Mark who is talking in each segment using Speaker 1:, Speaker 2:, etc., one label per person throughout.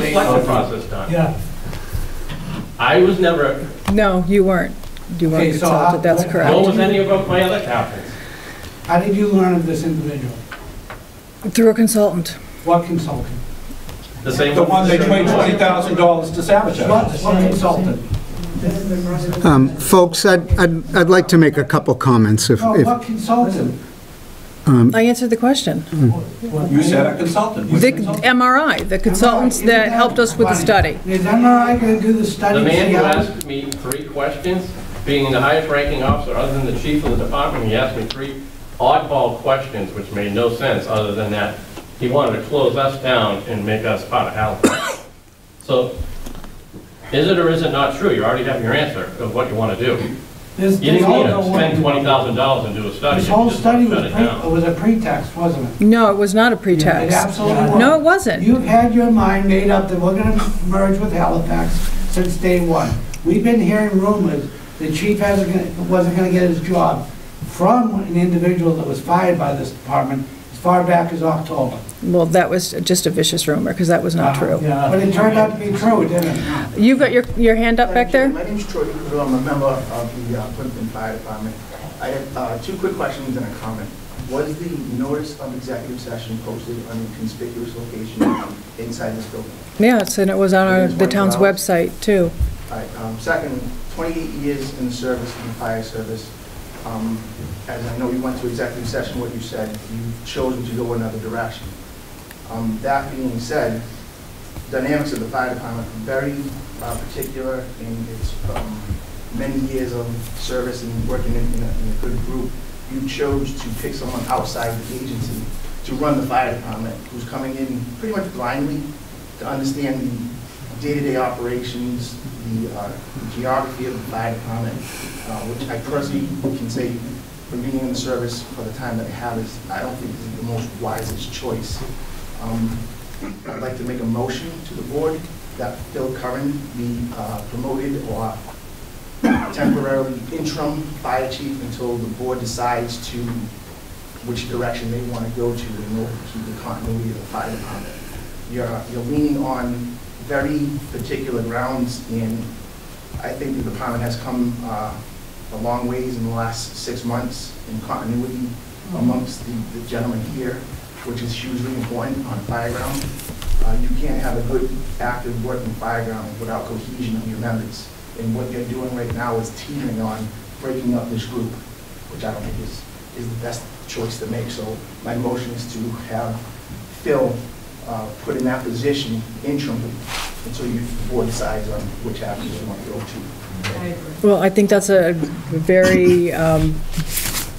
Speaker 1: The selection process done.
Speaker 2: Yeah.
Speaker 1: I was never,
Speaker 3: No, you weren't. You
Speaker 2: Okay,
Speaker 3: weren't
Speaker 2: so how-
Speaker 3: consulted, that's
Speaker 2: what-
Speaker 3: correct.
Speaker 1: nor was any of my other captains.
Speaker 2: How did you learn of this individual?
Speaker 3: Through a consultant.
Speaker 2: What consultant?
Speaker 1: The same.
Speaker 4: The one they paid $20,000 to
Speaker 2: What,
Speaker 4: sabotage.
Speaker 2: what consultant?
Speaker 5: Um, Folks, I'd, I'd I'd like to make a couple comments if,
Speaker 2: No,
Speaker 5: if,
Speaker 2: what consultant?
Speaker 3: I answered the question.
Speaker 4: You said a consultant. Which
Speaker 3: The
Speaker 4: consultant?
Speaker 3: MRI, the consultants that helped us with the study.
Speaker 2: Is MRI gonna do the study?
Speaker 1: The man who
Speaker 2: Yeah.
Speaker 1: asked me three questions, being the highest ranking officer other than the chief of the department, he asked me three oddball questions which made no sense other than that he wanted to close us down and make us part of Halifax. So is it or is it not true? You already have your answer of what you want to do.
Speaker 2: This-
Speaker 1: You
Speaker 2: this
Speaker 1: didn't
Speaker 2: whole-
Speaker 1: need to spend $20,0and and do a study.
Speaker 2: This
Speaker 1: You
Speaker 2: whole
Speaker 1: just
Speaker 2: study was,
Speaker 1: shut it down.
Speaker 2: pre- was a pretext, wasn't it?
Speaker 3: No, it was not a
Speaker 2: It
Speaker 3: pretext.
Speaker 2: absolutely was.
Speaker 3: No, it wasn't.
Speaker 2: You've had your mind made up that we're gonna merge with Halifax since day one. We've been hearing rumors the chief hasn't, gonna- wasn't gonna get his job from an individual that was fired by this department as far back as October. Uh,
Speaker 3: Well, that was just a vicious rumor, because that was
Speaker 2: Uh-huh,
Speaker 3: not true.
Speaker 2: But it turned out to be true, didn't it?
Speaker 3: You've got your, your hand up back there?
Speaker 6: My name's Troy Caputo, I'm a member of the uh, Plimpton Fire Department. I have uh, two quick questions and a comment. Was the notice of executive session posted on a conspicuous location inside this building?
Speaker 3: Yes, and it was on our- the town's website, too.
Speaker 6: All right, um, second, 28 years in the service, in the fire service. Um, As I know you went to executive session, what you said, you've chosen to go another direction. Um, That being said, dynamics of the fire department are very uh, particular in its um, many years of service and working in in a in a good group. You chose to pick someone outside the agency to run the fire department, who's coming in pretty much blindly to understand the day-to-day operations, the uh, geography of the fire department, uh, which I personally can say, from being in the service for the time that I have, is, I don't think is the most wisest choice. Um, I'd like to make a motion to the board that Phil Curran be uh, promoted or temporarily interim fire chief until the board decides to, which direction they want to go to in order to keep the continuity of the fire department. You're, you're leaning on very particular grounds, and I think the department has come uh, a long ways in the last six months in continuity amongst the the gentlemen here, which is hugely important on fire ground. Uh, You can't have a good, active working fire ground without cohesion of your members. And what they're doing right now is teaming on breaking up this group, which I don't think is, is the best choice to make. So my motion is to have Phil uh, put in that position interim until you, the board decides on which avenue you want to go to.
Speaker 3: Well, I think that's a very um,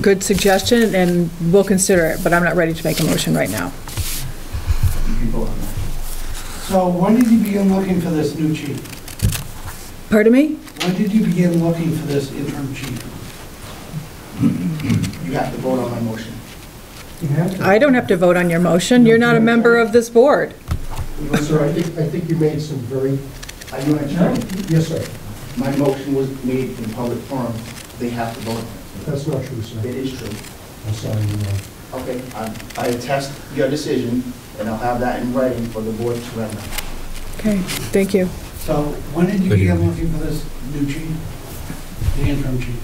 Speaker 3: good suggestion, and we'll consider it, but I'm not ready to make a motion right now.
Speaker 6: You vote on that.
Speaker 2: So when did you begin looking for this new chief?
Speaker 3: Pardon me?
Speaker 2: When did you begin looking for this interim chief?
Speaker 6: You have to vote on my motion.
Speaker 3: I don't have to vote on your motion. You're not a member of this board.
Speaker 7: Sir, I think, I think you made some very,
Speaker 6: Are you an attorney?
Speaker 7: yes, sir,
Speaker 6: My motion was made in public forum. They have to vote on
Speaker 7: that's not true,
Speaker 6: it.
Speaker 7: sir.
Speaker 6: It is true.
Speaker 7: I'm sorry, you know.
Speaker 6: Okay, I- I attest your decision, and I'll have that in writing for the board to render.
Speaker 3: Okay, thank you.
Speaker 2: So when did you begin looking for this new chief? The interim chief?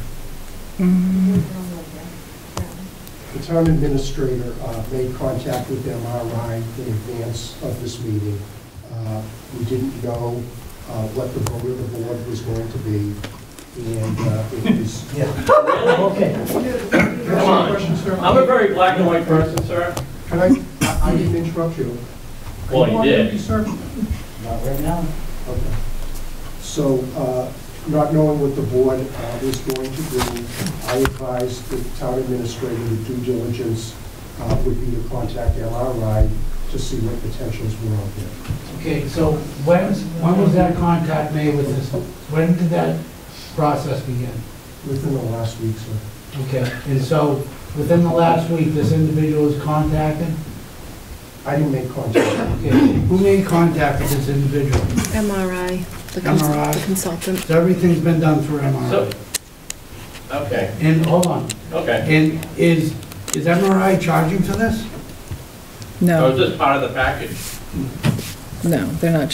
Speaker 7: The town administrator uh, made contact with MRI in advance of this meeting. Uh, We didn't know uh, what the vote of the board was going to be, and uh, it was... Okay.
Speaker 1: Come on. I'm a very black and white person, sir.
Speaker 7: Can I, I- I didn't interrupt you.
Speaker 1: Well,
Speaker 7: Can
Speaker 1: you
Speaker 7: walk
Speaker 1: did.
Speaker 7: with me, sir?
Speaker 2: Not right now.
Speaker 7: Okay. So, uh, not knowing what the board uh, was going to do, I advised the town administrator that due diligence uh, would be to contact LRI to see what potentials were out there.
Speaker 2: Okay, so when, when was that contact made with this? When did that process begin?
Speaker 7: Within the last week, sir.
Speaker 2: Okay, and so within the last week, this individual was contacted?
Speaker 7: I didn't make contact.
Speaker 2: Okay, who made contact with this individual?
Speaker 8: MRI, the cons-
Speaker 2: MRI.
Speaker 8: the consultant.
Speaker 2: So everything's been done through
Speaker 1: So,
Speaker 2: MRI.
Speaker 1: okay,
Speaker 2: And, hold on,
Speaker 1: okay.
Speaker 2: and is, is MRI charging for this?
Speaker 1: I was
Speaker 3: No,
Speaker 1: just part of Oh, the package.
Speaker 3: no, they're not